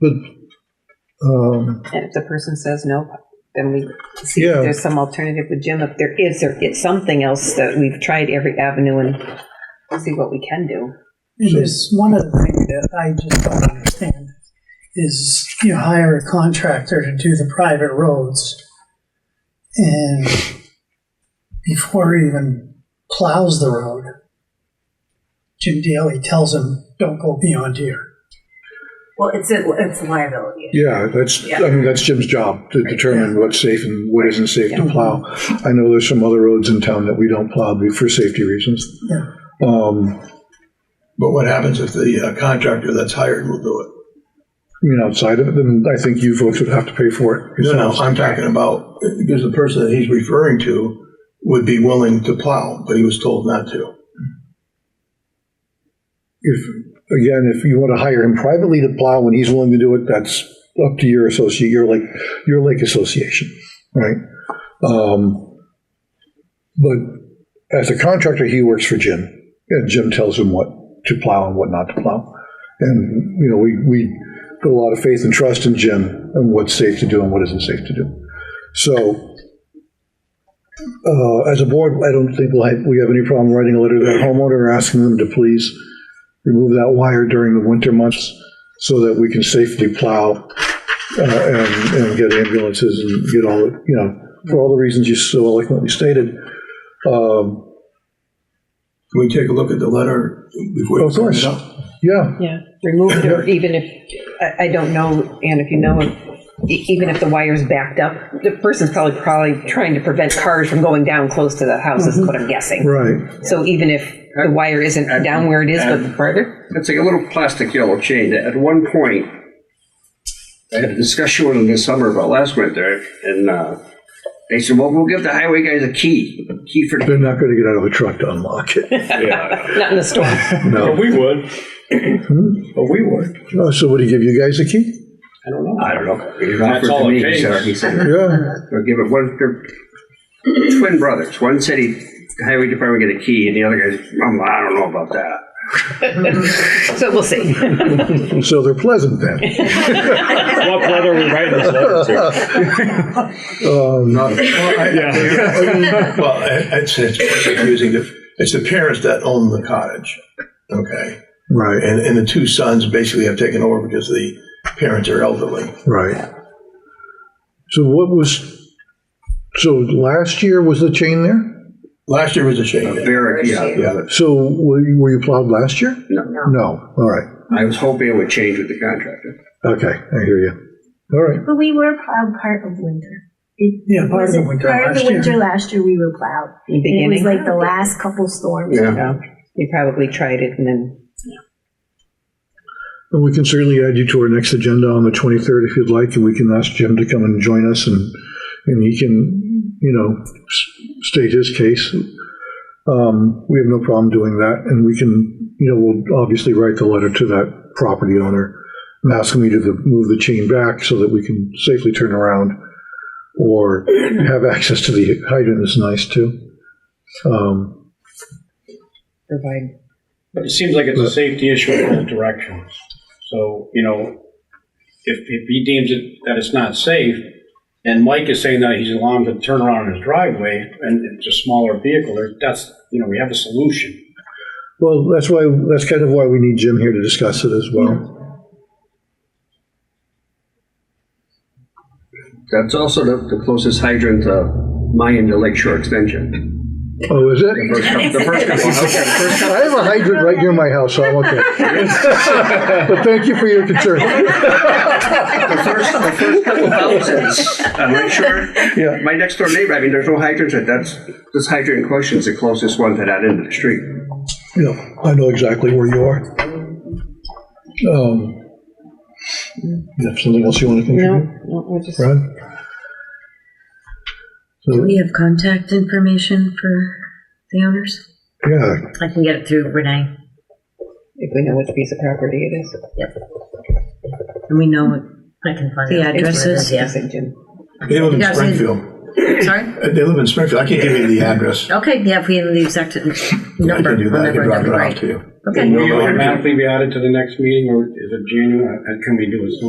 But, um, And if the person says no, then we see Yeah. if there's some alternative with Jim. If there is, there is something else that we've tried every avenue and see what we can do. And there's one other thing that I just don't understand, is you hire a contractor to do the private roads, and before he even plows the road, Jim Daly tells him, don't go beyond here. Well, it's a, it's a liability. yeah, that's, I mean, that's Jim's job to determine what's safe and what isn't safe to plow. I know there's some other roads in town that we don't plow be- for safety reasons. Yeah. Um, But what happens if the uh, contractor that's hired will do it? I mean, outside of it, then I think you folks would have to pay for it. No, no, I'm talking about, because the person that he's referring to would be willing to plow, but he was told not to. If, again, if you want to hire him privately to plow when he's willing to do it, that's up to your associate, your lake, your lake association, right? Um, But as a contractor, he works for Jim, and Jim tells him what to plow and what not to plow. And, you know, we, we put a lot of faith and trust in Jim and what's safe to do and what isn't safe to do. So, uh, as a board, I don't think we'll have, we have any problem writing a letter to that homeowner asking them to please remove that wire during the winter months so that we can safely plow uh, and, and get ambulances and get all the, you know, for all the reasons you so eloquently stated. Um, Can we take a look at the letter before? we Of course. send it up? Yeah, Yeah. Remove it, or even if, I, I don't know, and if you know, if- e- even if the wire's backed up, the person's probably, probably trying to prevent cars from going down close to the house, is what I'm guessing. right. So even if the wire isn't down where it is, but further, It's like a little plastic yellow chain. At one point, I had a discussion with them this summer about last winter, and uh, they said, "Well, we'll give the highway guys a key, key for." They're not going to get out of the truck to unlock it. not in the storm. But we would. But we would. Hmm? Oh, So would he give you guys a key? I don't know. I don't know. He offered That's all to it me. He said, takes. he said, Yeah, "They'll give it one." They're twin brothers. One said he, the highway department get a key, and the other guy's, "Mom, I don't know about that." So we'll see. so they're pleasant then. What letter are we writing this letter to? Yeah. Well, I- I'd say Uh, it's confusing. to- It's the parents that own the cottage, okay? Right, And, and the two sons basically have taken over because the parents are elderly. right. So what was, so last year was the chain there? Last year was a shame. Barrack, yeah, the other. So were you were you plowed last year? No, No, all right. I was hoping it would change with the contractor. Okay, I hear you. All right. But we were plowed part of winter. It Yeah, part of the was winter Part of last the winter year. last year, we were plowed. In the And it was beginning. like the last couple storms. Yeah. So You probably tried it and then And we can certainly add you to our next agenda on the 23rd if you'd like, and we can ask Jim to come and join us, and, and he can, you know, s- state his case. Um, We have no problem doing that, and we can, you know, we'll obviously write the letter to that property owner and ask him either to move the chain back so that we can safely turn around or have access to the hydrant is nice, too. Um, provide But it seems like it's a safety issue in both directions. So, you know, if, if he deems it, that it's not safe, and Mike is saying that he's allowing him to turn around in his driveway, and it's a smaller vehicle, there- that's, you know, we have a solution. Well, that's why, that's kind of why we need Jim here to discuss it as well. That's also the, the closest hydrant to mine to Lakeshore Extension. Oh, is it? First come- The first couple houses. I have a hydrant right near my house, so I'm okay. But thank you for your concern. The first, the first couple houses on Lakeshore. Yeah. uh, My next door neighbor, I mean, there's no hydrants, but that's, this hydrant in question's the closest one to that end of the street. Yeah, I know exactly where you are. Um, you have something else you want to No, contribute, no, I just, Brad? Do So, we have contact information for the owners? yeah, I can get it through Renee, if we know which piece of property it is. and we know what. I can find The addresses, It's yeah. St. Jim. They live in Yeah, so- Springfield. Sorry? Uh, They live in Springfield. I can't give you the address. Okay, yeah, if we have the exact I number. can do that. I can whatever, drop it right. off to you. Okay. Will you automatically be added to the next meeting, or is it January, and uh, can we do it sooner?